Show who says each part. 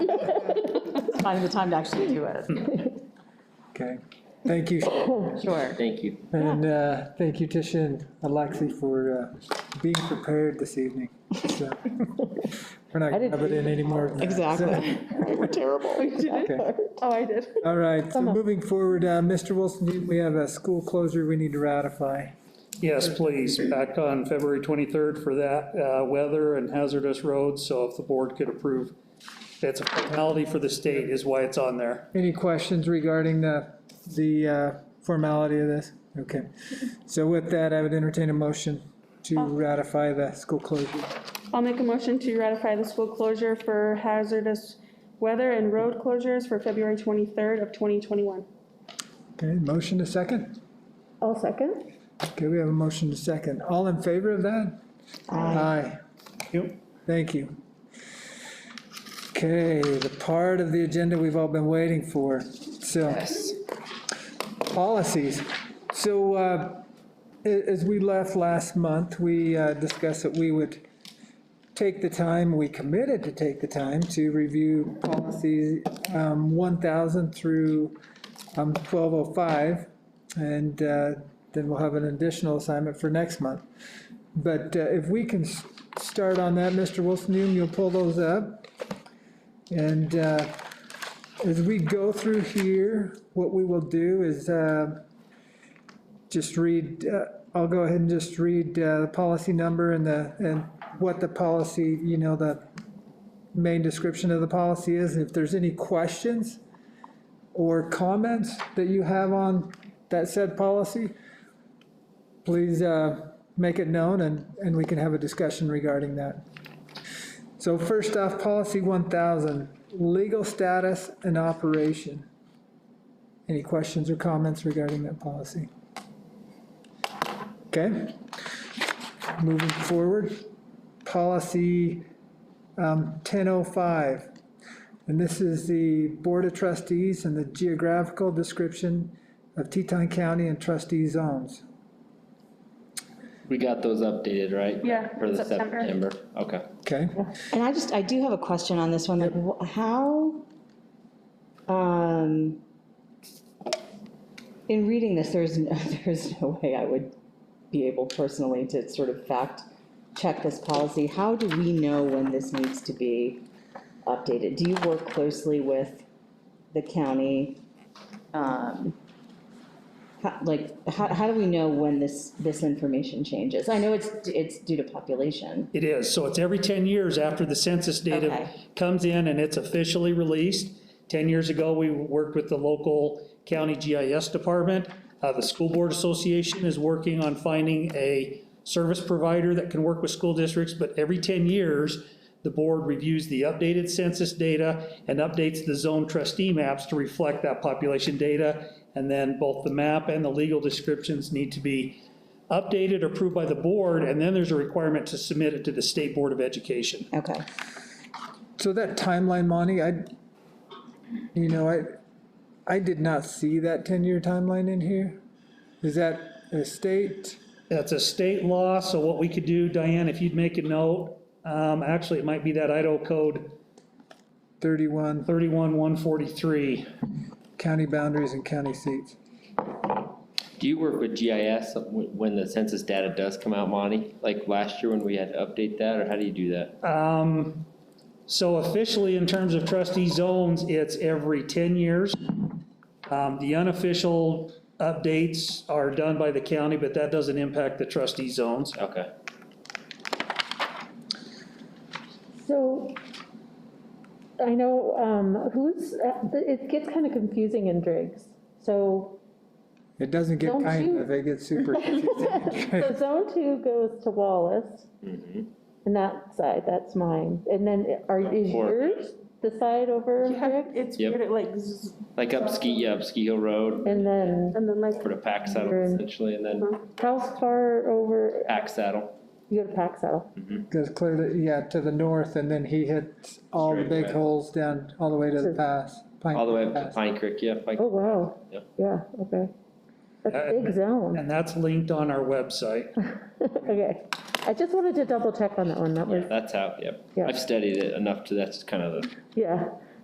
Speaker 1: finding the time to actually do it.
Speaker 2: Okay, thank you.
Speaker 1: Sure.
Speaker 3: Thank you.
Speaker 2: And uh, thank you, Tisha and Alexi, for uh, being prepared this evening. So, We're not going to rub it in anymore. than that.
Speaker 1: Exactly. We're terrible. We did
Speaker 2: it. Okay.
Speaker 1: Oh, I did.
Speaker 2: All right, so moving forward, uh, Mr. Wilson, we have a school closure we need to ratify.
Speaker 4: Yes, please, back on February 23rd for that, uh, weather and hazardous roads, so if the board could approve. That's a formality for the state is why it's on there.
Speaker 2: Any questions regarding the, the uh, formality of this? Okay. So with that, I would entertain a motion to ratify the school closure.
Speaker 5: I'll make a motion to ratify the school closure for hazardous weather and road closures for February 23rd of 2021.
Speaker 2: Okay, motion to second?
Speaker 6: I'll second.
Speaker 2: Okay, we have a motion to second. All in favor of that? Aye.
Speaker 4: Yep.
Speaker 2: Thank you. Okay, the part of the agenda we've all been waiting for, so. Policies. So uh, a- as we left last month, we uh, discussed that we would take the time, we committed to take the time to review policies um, 1,000 through um, 1205. And uh, then we'll have an additional assignment for next month. But uh, if we can s- start on that, Mr. Wilson, you- you'll pull those up. And uh, as we go through here, what we will do is uh, just read, uh, I'll go ahead and just read uh, the policy number and the, and what the policy, you know, the main description of the policy is. If there's any questions or comments that you have on that said policy, please uh, make it known and, and we can have a discussion regarding that. So first off, policy 1,000, legal status and operation. Any questions or comments regarding that policy? Okay. Moving forward, policy um, 1005. And this is the Board of Trustees and the geographical description of Teton County and trustee zones.
Speaker 3: We got those updated, right?
Speaker 5: Yeah,
Speaker 3: For the
Speaker 5: September.
Speaker 3: September, okay.
Speaker 2: Okay?
Speaker 1: And I just, I do have a question on this one, like, wh- how, um, in reading this, there's, n- there's no way I would be able personally to sort of fact check this policy. How do we know when this needs to be updated? Do you work closely with the county? Um, how- Like, how, how do we know when this, this information changes? I know it's, it's due to population.
Speaker 4: It is, so it's every 10 years after the census data
Speaker 1: Okay.
Speaker 4: comes in and it's officially released. 10 years ago, we worked with the local county GIS department. Uh, The School Board Association is working on finding a service provider that can work with school districts, but every 10 years, the board reviews the updated census data and updates the zone trustee maps to reflect that population data. And then both the map and the legal descriptions need to be updated, approved by the board, and then there's a requirement to submit it to the State Board of Education.
Speaker 1: Okay.
Speaker 2: So that timeline, Monty, I, you know, I, I did not see that 10-year timeline in here. Is that a state?
Speaker 4: That's a state law, so what we could do, Diane, if you'd make a note, um, actually, it might be that Idaho Code
Speaker 2: 31
Speaker 4: 31143.
Speaker 2: county boundaries and county seats.
Speaker 3: Do you work with GIS wh- when the census data does come out, Monty? Like last year when we had to update that, or how do you do that?
Speaker 4: Um, So officially, in terms of trustee zones, it's every 10 years. Um, The unofficial updates are done by the county, but that doesn't impact the trustee zones.
Speaker 3: Okay.
Speaker 6: So I know um, who's, uh, it gets kind of confusing in Driggs. So,
Speaker 2: It doesn't get
Speaker 6: Don't
Speaker 2: kind
Speaker 6: you-
Speaker 2: of, it gets super
Speaker 6: so zone two goes to Wallace. And that side, that's mine. And then are, is
Speaker 3: Or-
Speaker 6: yours the side over Driggs?
Speaker 5: It's
Speaker 3: Yep.
Speaker 5: weird, it like, zzz,
Speaker 3: Like up Ski, yeah, up Ski Hill Road,
Speaker 6: And then
Speaker 5: and then like,
Speaker 3: for the pack saddle essentially, and then
Speaker 6: how far over,
Speaker 3: pack saddle.
Speaker 6: you go to Paxo?
Speaker 2: Goes clear to, yeah, to the north, and then he hits all the
Speaker 3: Straight
Speaker 2: big
Speaker 3: away.
Speaker 2: holes down, all the way to the
Speaker 6: So-
Speaker 2: pass. Pine
Speaker 3: All the way
Speaker 2: Creek
Speaker 3: up to
Speaker 2: Pass.
Speaker 3: Pine Creek, yeah. Pine-
Speaker 6: Oh, wow.
Speaker 3: Yep.
Speaker 6: Yeah, okay. That's a big zone.
Speaker 4: And that's linked on our website.
Speaker 6: Okay. I just wanted to double check on that one. That was,
Speaker 3: Yeah, that's how, yep.
Speaker 6: Yeah.
Speaker 3: I've studied it enough to, that's kind of the
Speaker 6: yeah.